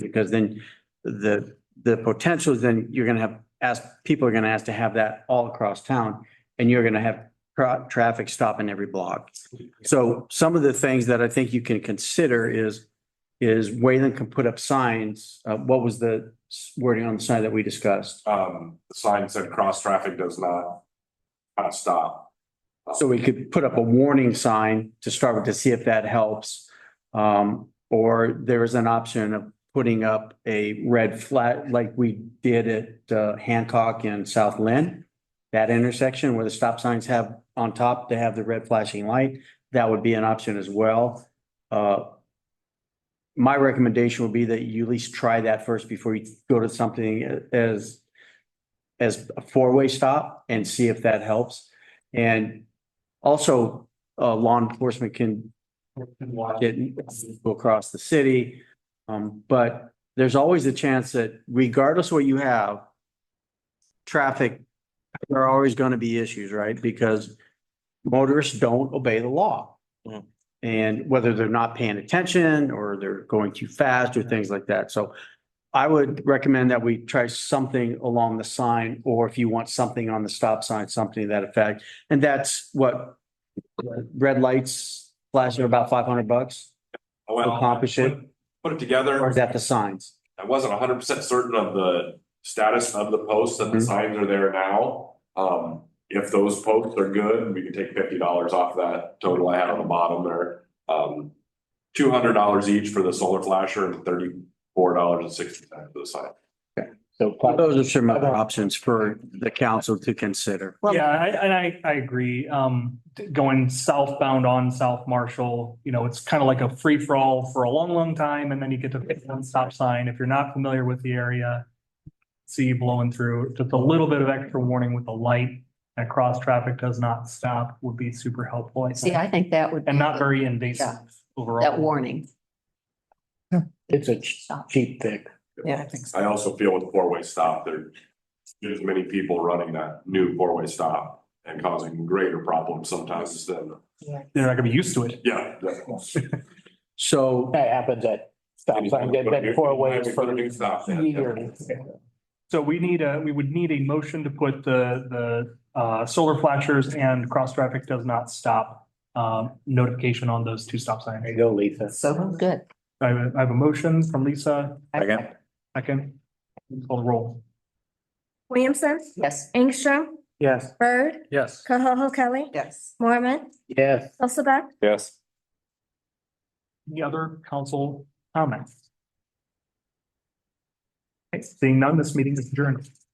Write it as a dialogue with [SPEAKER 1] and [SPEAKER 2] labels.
[SPEAKER 1] because then the, the potential is then you're gonna have, ask, people are gonna ask to have that all across town. And you're gonna have tra- traffic stopping every block. So some of the things that I think you can consider is, is Wayland can put up signs. Uh, what was the wording on the sign that we discussed?
[SPEAKER 2] Um, the sign said cross traffic does not, not stop.
[SPEAKER 1] So we could put up a warning sign to start with to see if that helps. Um, or there is an option of putting up a red flag like we did at uh, Hancock and South Lynn. That intersection where the stop signs have on top, they have the red flashing light. That would be an option as well. Uh, my recommendation would be that you at least try that first before you go to something as as a four-way stop and see if that helps. And also, uh, law enforcement can watch it and go across the city. Um, but there's always a chance that regardless what you have, traffic, there are always going to be issues, right? Because motorists don't obey the law.
[SPEAKER 3] Mhm.
[SPEAKER 1] And whether they're not paying attention or they're going too fast or things like that. So I would recommend that we try something along the sign, or if you want something on the stop sign, something to that effect. And that's what, red lights flashing are about five hundred bucks,
[SPEAKER 2] I went-
[SPEAKER 1] Accomplish it.
[SPEAKER 2] Oh, Put it
[SPEAKER 1] or
[SPEAKER 2] together.
[SPEAKER 1] is that the signs?
[SPEAKER 2] I wasn't hundred percent certain of the status of the posts and the
[SPEAKER 1] Mhm.
[SPEAKER 2] signs are there now. Um, if those posts are good, we can take fifty dollars off that total I had on the bottom there. Um, two hundred dollars each for the solar flasher and thirty-four dollars and sixty cents for the sign.
[SPEAKER 3] So
[SPEAKER 1] Those are some other options for the council to consider.
[SPEAKER 4] Yeah, I, and I, I agree. Um, d- going southbound on South Marshall, you know, it's kind of like a free for all for a long, long time. And then you get to pick one stop sign. If you're not familiar with the area, see you blowing through, just a little bit of extra warning with the light that cross traffic does not stop would be super helpful. I
[SPEAKER 5] See,
[SPEAKER 4] think,
[SPEAKER 5] I think that would.
[SPEAKER 4] and not
[SPEAKER 5] be
[SPEAKER 4] very invasive overall.
[SPEAKER 5] That warning.
[SPEAKER 3] It's a ch- cheap pick.
[SPEAKER 5] Yeah, I think
[SPEAKER 2] I also feel with the four-way stop, there, there's many people running that new four-way stop and causing greater problems sometimes than,
[SPEAKER 4] They're not gonna be used to it.
[SPEAKER 2] yeah. that-
[SPEAKER 1] So
[SPEAKER 3] That happens at stop sign, that, that four ways
[SPEAKER 2] Put a new stop
[SPEAKER 3] for
[SPEAKER 2] sign.
[SPEAKER 3] years.
[SPEAKER 4] So we need a, we would need a motion to put the, the, uh, solar flashers and cross traffic does not stop, um, notification on those two stop signs.
[SPEAKER 3] There you go, Lisa.
[SPEAKER 5] so. Good.
[SPEAKER 4] I have, a- I have a motion from Lisa,
[SPEAKER 5] Second.
[SPEAKER 4] second, call the roll.
[SPEAKER 6] Williamson,
[SPEAKER 5] Yes.
[SPEAKER 6] Ingstrom,
[SPEAKER 3] Yes.
[SPEAKER 6] Bird,
[SPEAKER 4] Yes.
[SPEAKER 6] Koho Kelly,
[SPEAKER 5] Yes.
[SPEAKER 6] Mormon,
[SPEAKER 3] Yes.
[SPEAKER 6] Hilsaback,
[SPEAKER 2] Yes.
[SPEAKER 4] Any other council comments? Okay, Seeing none, this meeting is adjourned.